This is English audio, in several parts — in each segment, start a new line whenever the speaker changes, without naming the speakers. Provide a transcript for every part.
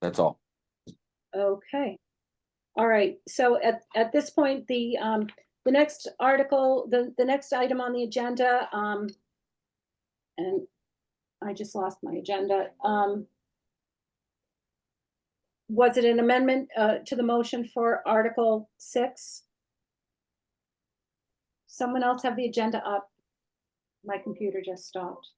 That's all.
Okay. All right, so at, at this point, the, um, the next article, the, the next item on the agenda, um, and I just lost my agenda, um, was it an amendment, uh, to the motion for Article Six? Someone else have the agenda up? My computer just stopped.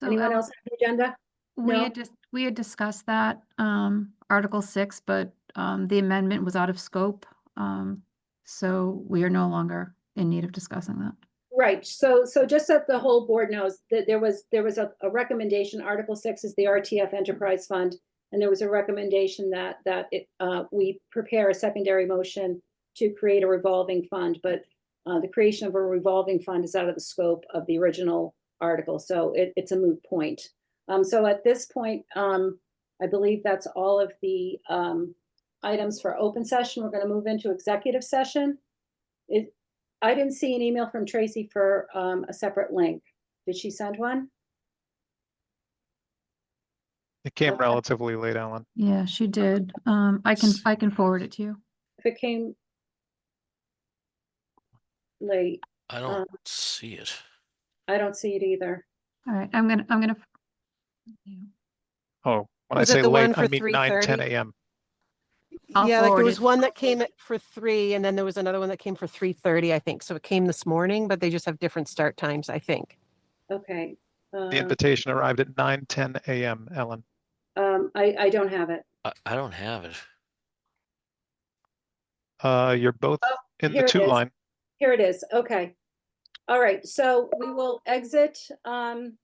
So
Anyone
um,
else have the agenda?
We
No.
had just, we had discussed that, um, Article six, but, um, the amendment was out of scope. Um, so we are no longer in need of discussing that.
Right, so, so just that the whole board knows that there was, there was a, a recommendation, Article six is the RTF Enterprise Fund. And there was a recommendation that, that it, uh, we prepare a secondary motion to create a revolving fund, but. Uh, the creation of a revolving fund is out of the scope of the original article, so it, it's a moot point. Um, so at this point, um, I believe that's all of the, um, items for open session. We're gonna move into executive session. It, I didn't see an email from Tracy for um, a separate link. Did she send one?
It came
Okay.
relatively late, Alan.
Yeah, she did. Um, I can, I can forward it to you.
If it came late,
I
Um,
don't see it.
I don't see it either.
All right, I'm gonna, I'm gonna.
Oh, when I
Was it
say
the one
late, I
for
mean nine, ten
3:30?
AM.
I'll
Yeah, like
forward
there was
it.
one that came at for three and then there was another one that came for three thirty, I think. So it came this morning, but they just have different start times, I think.
Okay. um,
The invitation arrived at nine, ten AM, Alan.
Um, I, I don't have it.
I, I don't have it.
Uh, you're both
Oh,
in
here
the
it
two
is.
line.
Here it is. Okay. All right, so we will exit um,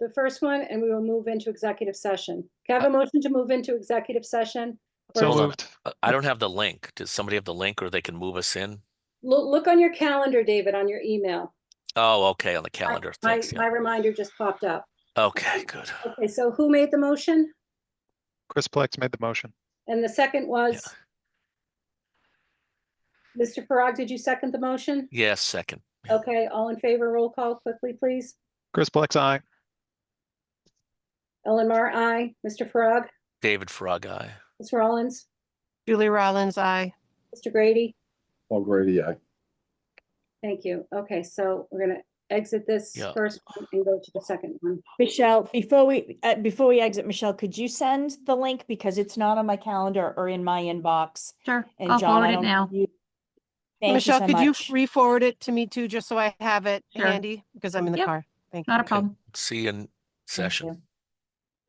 the first one and we will move into executive session. Can I have a motion to move into executive session?
So
Hold on.
moved.
I- Uh, I don't have the link. Does somebody have the link or they can move us in?
Look, look on your calendar, David, on your email.
Oh, okay, on the calendar.
My,
Thanks.
my
yeah.
reminder just popped up.
Okay, good.
Okay, so who made the motion?
Chris Plex made the motion.
And the second was? Mr. Farag, did you second the motion?
Yes, second. Yeah.
Okay, all in favor, roll call quickly, please.
Chris Plex, aye.
Ellen Mar, aye. Mr. Farag,
David Frog Eye.
Ms. Rollins,
Julie Rollins, I.
Mr. Grady.
Paul Grady, aye.
Thank you. Okay, so we're gonna exit this
Yeah.
first one and go to the second one.
Michelle, before we, uh, before we exit, Michelle, could you send the link because it's not on my calendar or in my inbox?
Sure,
And
I'll
John,
forward
I
it
don't.
now.
think you- Thank you
Michelle,
so
could you
much.
re-forward it to me too, just so I have it
Sure.
handy? Because I'm in the
Yep.
car. Thank you.
Not a
Okay.
problem.
See you in session.
you.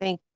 Thank